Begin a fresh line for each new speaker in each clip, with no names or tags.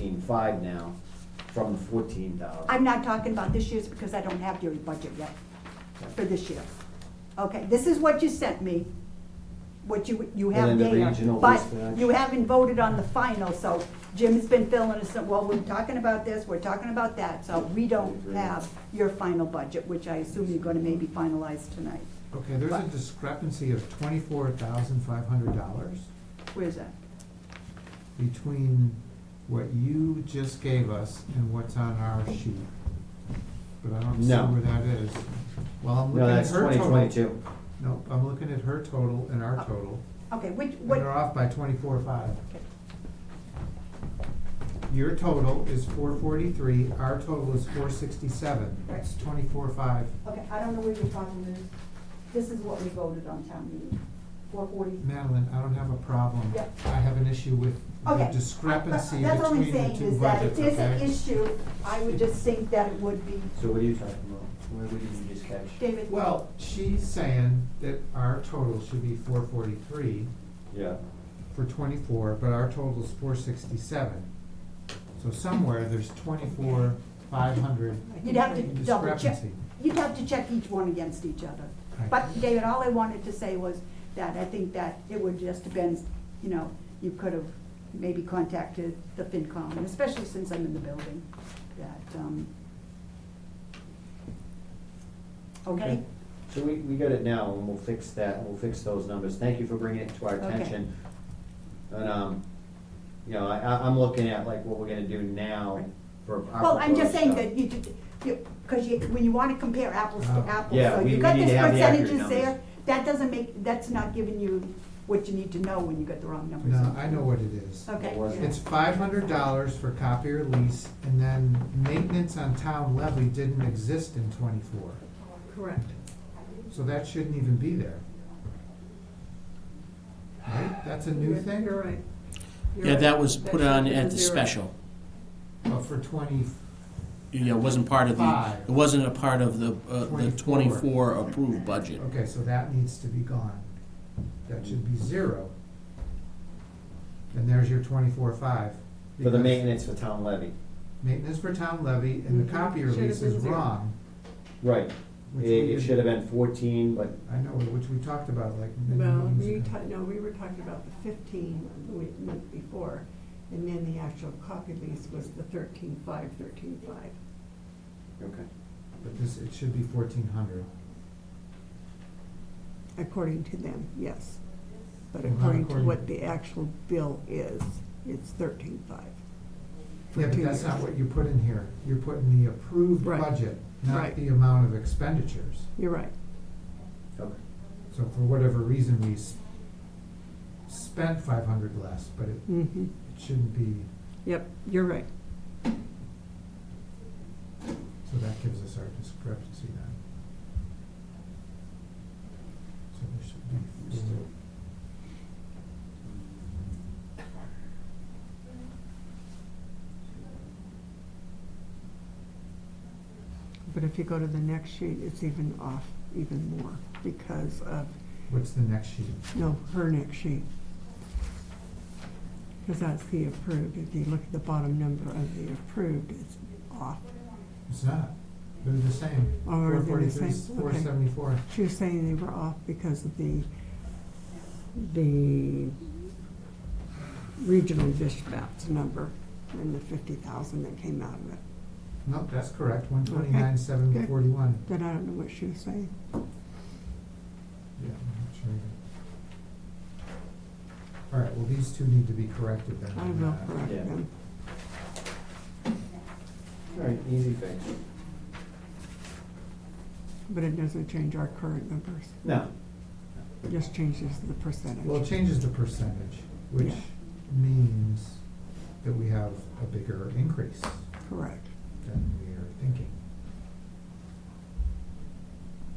thirteen-five now from the fourteen thousand.
I'm not talking about this year's because I don't have your budget yet for this year. Okay, this is what you sent me, what you, you have
And then the
there.
regional
But
dispatch.
you haven't voted on the final, so Jim's been filling us, in, well, we're talking about this, we're talking about that. So we don't
Agreed.
have your final budget, which I assume you're gonna maybe finalize tonight.
Okay, there's a discrepancy of twenty-four thousand five hundred dollars
Where's that?
between what you just gave us and what's on our sheet. But I don't see
No.
where that is. Well, I'm
No,
looking at
that's
her total.
twenty twenty-two. Uh,
Nope, I'm looking at her total and our
Oh.
total,
Okay, which,
and
what?
they're off by twenty-four five.
okay.
Your total is four forty-three, our total is four sixty-seven,
Right.
that's twenty-four five.
Okay, I don't know where you're talking, Liz. This is what we voted on town meeting, four forty.
Madeline, I don't have a problem.
Yep.
I have an issue with the
Okay.
discrepancy
But That's all I'm
between the
saying
two
is that if
budgets, okay?
there's an issue, I would just think that it would be,
So what are you talking about? Where would you just catch?
David.
Well, she's saying that our total should be four forty-three
Yeah.
for twenty-four, but our total is four sixty-seven. So somewhere there's twenty-four, five hundred
You'd have to double check,
discrepancy.
you'd have to check each one against each other.
Right.
But David, all I wanted to say was that I think that it would just have been, you know, you could have maybe contacted the FinCom, and especially since I'm in the building, that, um, okay?
Okay.
So we, we got it now and we'll fix that, we'll fix those numbers. Thank you for bringing it to our
Okay.
attention. And, um, you know, I, I- I'm looking at like what we're gonna do now
Right.
for our.
Well, I'm just
proposed
saying
stuff.
that you, did- you, because you, when you wanna compare apples to
Oh.
apples,
Uh-huh. Yeah,
so
we-
you
we
got
need
these
to have the accurate
percentages there,
numbers.
that doesn't make, that's not giving you what you need to know when you got the wrong numbers.
No, I know what it is.
Okay.
What was it?
It's five hundred dollars for copier lease, and then maintenance on town levy didn't exist in twenty-four.
Correct.
So that shouldn't even be there. Right? That's a new thing?
You're right. You're
Yeah,
right.
that was put on
should be
at the
zero.
special.
Well, for twenty,
Yeah, it wasn't part of the,
Five.
it wasn't a part of the, uh,
24.
the twenty-four approved budget.
okay, so that needs to be gone. That should be zero. And there's your twenty-four five.
For the maintenance for town levy.
Maintenance for town levy and the
Mhm.
copier
Should have
lease is
been zero.
wrong.
Right.
which
It,
we
it
didn't-
should have been fourteen, but
I know, which we talked about like many
Well,
meetings
we
ago.
ta- no, we were talking about the fifteen the week, month before, and then the actual copy lease was the thirteen five, thirteen five.
Okay.
But this, it should be fourteen hundred.
According to them, yes. But
Well, not
according to
according-
what the actual bill is, it's thirteen five.
Yeah, but that's not what you put in here. You're putting the approved
Right.
budget, not
Right.
the amount of expenditures.
You're right.
Okay.
So for whatever reason, we s- spent five hundred less, but it
Mm-hmm.
it shouldn't be,
Yep, you're right.
so that gives us our discrepancy then. So there should be four.
But if you go to the next sheet, it's even off even more because of
What's the next sheet?
No, her next sheet. Because that's the approved. If you look at the bottom number of the approved, it's off.
It's not. They're the same.
Oh, are they the same?
Four
Okay.
seventy-four.
She was saying they were off because of the, the regional dispatch number and the fifty thousand that came out of it.
Nope, that's correct. One twenty-nine, seven
good.
forty-one.
Then I don't know what she was saying.
Yeah, I'm not sure either. All right, well, these two need to be corrected then.
I will
Uh,
correct
Yeah.
them.
All right, easy fix.
But it doesn't change our current numbers.
No.
It just changes the
Well, it
percentage.
changes the percentage, which
Yeah.
means that we have a bigger increase
Correct.
than we are thinking.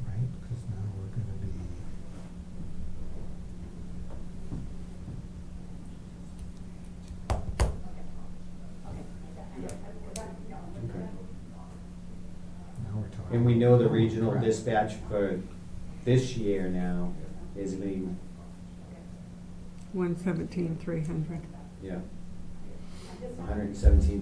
Right, because now we're gonna be.
Okay.
Now we're talking.
And we know the regional
Correct.
dispatch for this year now is gonna be,
One seventeen, three hundred.
yeah. hundred and seventeen